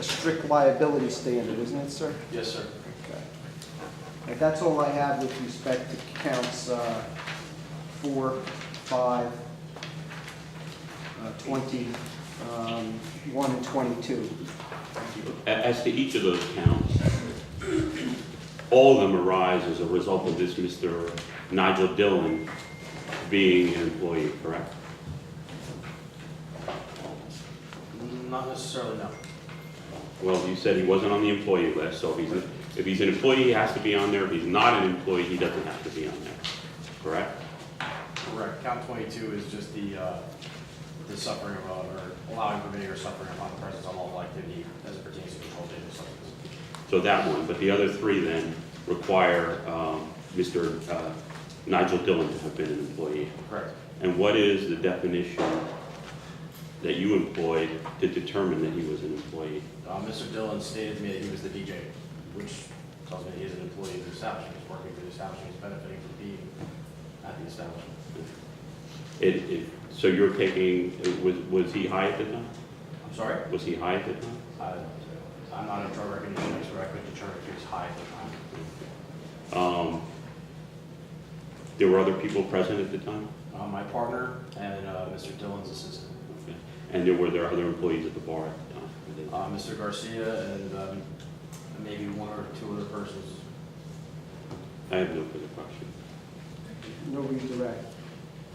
a strict liability standard, isn't it, sir? Yes, sir. Okay. All right, That's all I have with respect to counts uh, four, five, uh, 20, um, 1, and 22. A- As to each of those counts, all of them arise as a result of this Mr. Nigel Dillon being an employee, correct? Not necessarily, no. Well, you said he wasn't on the employee list, so if he's, if he's an employee, he has to be on there. If he's not an employee, he doesn't have to be on there, correct? Correct. Count 22 is just the, uh, the suffering of, uh, or allowing permitting or suffering upon the presence of lawful activity as it pertains to controlled dangerous substances. So that one, but the other three then require um, Mr. uh, Nigel Dillon to have been an employee. Correct. And what is the definition that you employed to determine that he was an employee? Uh, Mr. Dillon stated to me that he was the DJ, which tells me he is an employee of the establishment, he's working for the establishment, he's benefiting from being at the establishment. It, it, so you're taking, was, was he high at the time? I'm sorry? Was he high at the time? I- I'm not a drug recognition expert, I could determine if he was high at the time. Um, there were other people present at the time? Uh, My partner and uh, Mr. Dillon's assistant. Okay. And there were, there other employees at the bar at the time? were there? Uh, Mr. Garcia and um, maybe one or two other persons. I have no further questions. No redirect.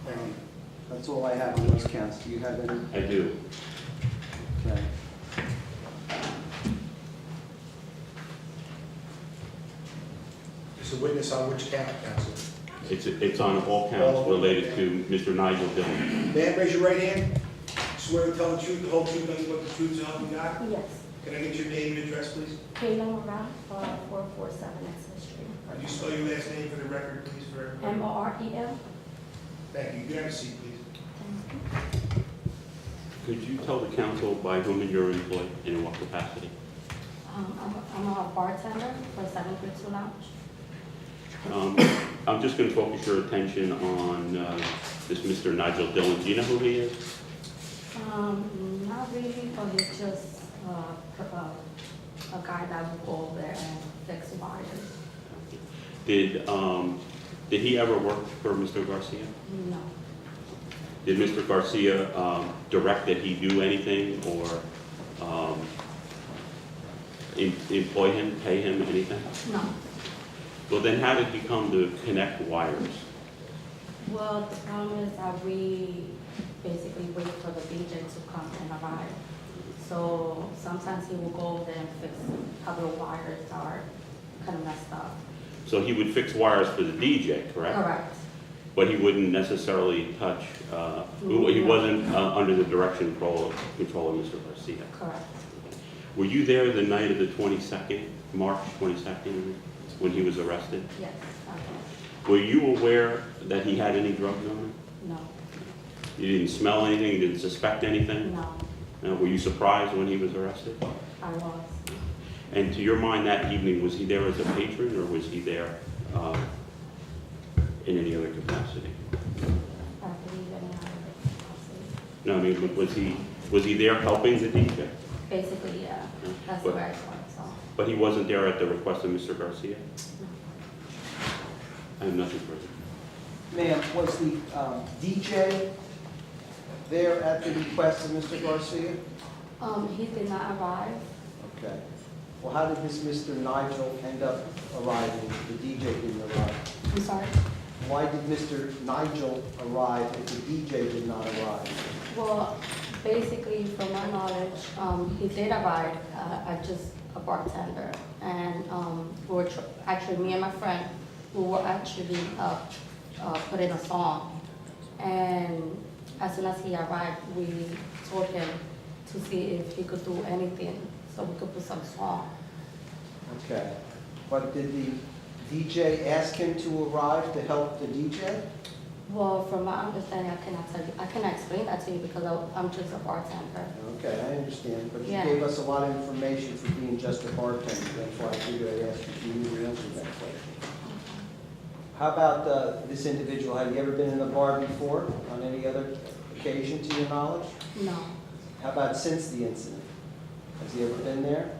Um, That's all I have on those counts. Do you have any? I do. Okay. It's a witness on which count, counsel? It's, it's on all counts related to Mr. Nigel Dillon. Man, raise your right hand. Swear to tell the truth, the whole truth, nothing but the truth, so help you God. Yes, Can I get your name and address, please? Kayla Morale, uh, 447 Exmouth Street. Could you spell your last name for the record, please, for everyone? M-O-R-E-L. Thank you. You can have a seat, please. Could you tell the council by whom you're employed and in what capacity? Um, I'm I'm a bartender for Seven Creek Two Lounge. Um, I'm just going to focus your attention on uh, this Mr. Nigel Dillon. Do you know who he is? Um, Not really, but it's just uh, c- uh, a guy that will go over there and fix wires. Did, um, did he ever work for Mr. Garcia? No, Did Mr. Garcia, um, direct that he do anything or, um, em- employ him, pay him anything? no. Well, then how did he come to connect wires? Well, the problem is that we basically wait for the DJ to come and arrive. So sometimes he will go over there and fix how the wires are kind of messed up. So he would fix wires for the DJ, correct? Correct. But he wouldn't necessarily touch, uh, he wasn't, uh, under the direction control, control of Mr. Garcia. Correct. Were you there the night of the twenty-second, March twenty-second, when he was arrested? Yes. Okay. Were you aware that he had any drugs on him? No. You didn't smell anything, you didn't suspect anything? No. Now, were you surprised when he was arrested? I was. And to your mind, that evening, was he there as a patron, or was he there uh, in any other capacity? I believe in it. No, I mean, was he, was he there helping the DJ? Basically, yeah. That's But- where I was. So. But he wasn't there at the request of Mr. Garcia? No. I have nothing further. Ma'am, was the um, DJ there at the request of Mr. Garcia? Um, he did not arrive. Okay. Well, how did this Mr. Nigel end up arriving? The DJ didn't arrive. I'm sorry. Why did Mr. Nigel arrive if the DJ did not arrive? Well, basically, from my knowledge, um, he did arrive. Uh, I just a bartender, and um, we were tr- actually me and my friend, we were actually uh, uh, put in a song, and as soon as he arrived, we told him to see if he could do anything, so we could put some song. Okay. But did the DJ ask him to arrive to help the DJ? Well, from my understanding, I cannot tell you, I cannot explain that to you because I- I'm just a bartender. Okay, I understand, but you Yeah. gave us a lot of information for being just a bartender. That's why I figured I'd ask if you knew the answer to that question. How about uh, this individual? Have you ever been in a bar before on any other occasion to your knowledge? No, How about since the incident? Has he ever been there?